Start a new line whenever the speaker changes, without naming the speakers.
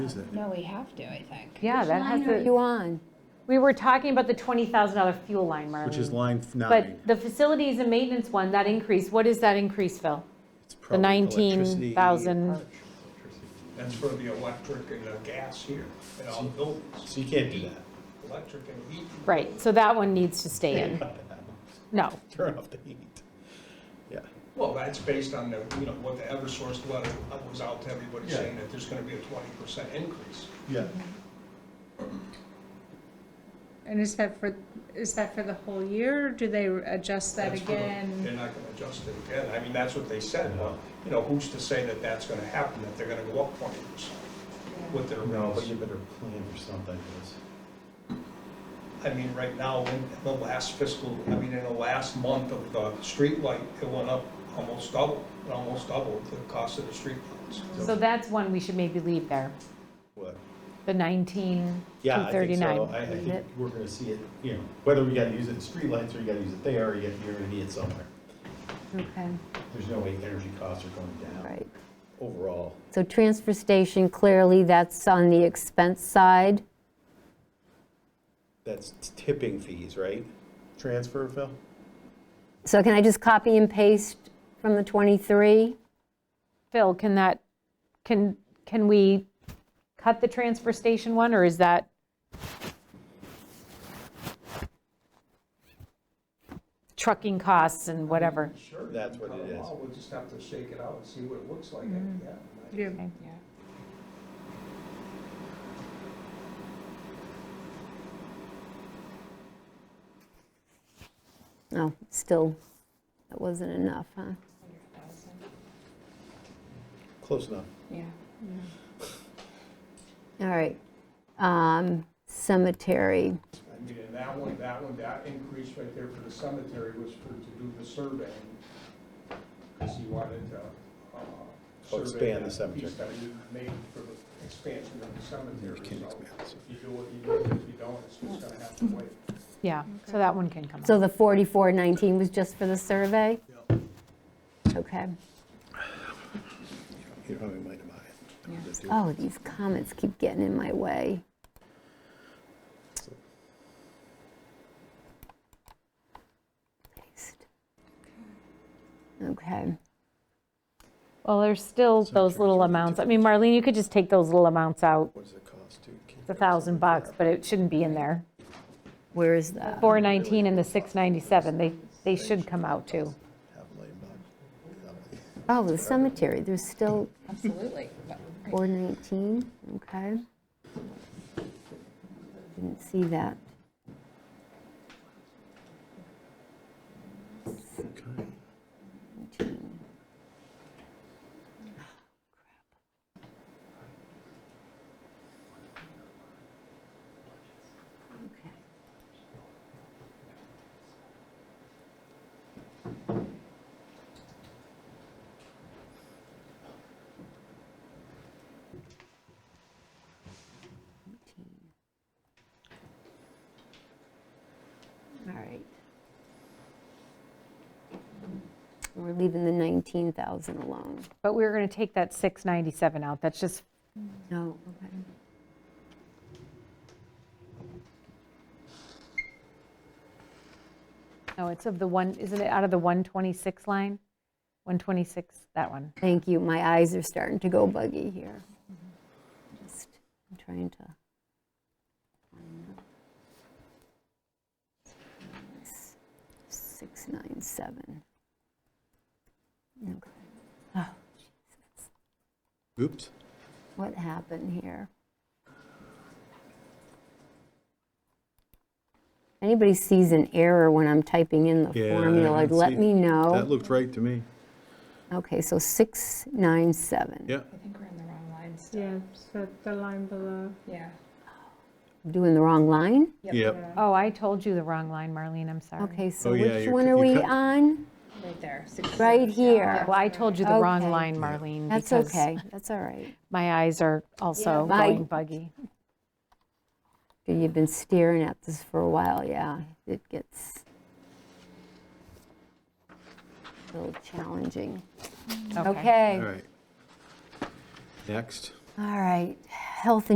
Is it?
No, we have to, I think.
Yeah, that has to,
You on?
we were talking about the $20,000 fuel line, Marlene.
Which is line f- nine.
But the facilities and maintenance one, that increase, what is that increase, Phil?
It's probably electricity.
19,000.
That's for the electric and the gas here in all the buildings,
So you can't do that.
electric and heat.
Right, so that one needs to stay in. No,
Turn off the heat. Yeah.
Well, that's based on the, you know, what the Eversource letter was out to everybody
Yeah.
saying that there's gonna be a twenty percent increase.
Yeah.
And is that for, is that for the whole year, or do they adjust that
That's for the- They're
again?
not gonna adjust it again. I mean, that's what they said, but, you know, who's to say that that's gonna happen, that they're gonna go up twenty percent with their
No, but
rates?
you better plan for something. 'cause-
I mean, right now, in the last fiscal, I mean, in the last month of the street light, it went up almost double, it almost doubled the cost of the street lights.
so that's one we should maybe leave there,
What?
the 19,
Yeah, I think
239.
so. I, I
Leave
think
it.
we're gonna see it, you know, whether we gotta use it in streetlights or you gotta use it there, you- you're gonna need it somewhere.
Okay,
There's no way energy costs are going down
right.
overall.
So transfer station, clearly that's on the expense side.
That's tipping fees, right? Transfer, Phil?
So can I just copy and paste from the 23?
Phil, can that, can, can we cut the transfer station one, or is that, trucking costs and whatever?
Sure.
That's what it is.
We'll just have to shake it out and see what it looks like at the end.
Yeah.
No, Oh, still, that wasn't enough, huh?
Close enough.
Yeah.
All right. Um,
I
Cemetery,
mean, and that one, that one, that increase right there for the cemetery was for, to do the survey. Because he wanted to, uh.
Oh, expand
survey
the
that
cemetery.
Piece that you made for the expansion of the cemetery.
You can
So
expand the cemetery.
If you do what you do, if you don't, it's just gonna have to wait.
Yeah, so that one can come
so
out.
the 4419 was just for the survey? Okay.
You don't have any money to buy it.
Oh, these comments keep getting in my way. Paste. Okay,
Well, there's still those little amounts. I mean, Marlene, you could just take those little amounts out,
What does it cost to? keep
the
it?
1,000 bucks, but it shouldn't be in there.
where is that?
419 and the 697, they, they should come out too.
Half a million bucks.
Oh, the cemetery, there's still
Absolutely. But-
419, okay. Didn't see that.
Okay.
All right. We're leaving the 19,000 alone.
But we were going to take that 697 out, that's just,
No, okay.
no, it's of the one, isn't it out of the 126 line? 126, that one.
Thank you, my eyes are starting to go buggy here. Just, I'm trying to. Six, nine, seven. Okay,
Oops.
what happened here? Anybody sees an error when I'm typing in the
Yeah, I
formula, like,
can see-
let me
That
know.
looked right to me.
Okay, so six, nine, seven.
Yeah.
I think we're in the wrong line still.
Yeah, so the line below.
Yeah.
Doing the wrong line?
Yep.
Oh, I told you the wrong line, Marlene, I'm sorry.
Okay, so
Oh, yeah,
which
you're
one
co-
are
you
we
cut-
on?
Right there. six-
Right here.
Well, I told you the wrong
Okay.
line, Marlene,
That's
because
okay, that's all right.
my eyes are also
Yeah, my-
going buggy.
You've been staring at this for a while, yeah. It gets a little challenging. Okay.
All right. Next.
Um, All right, health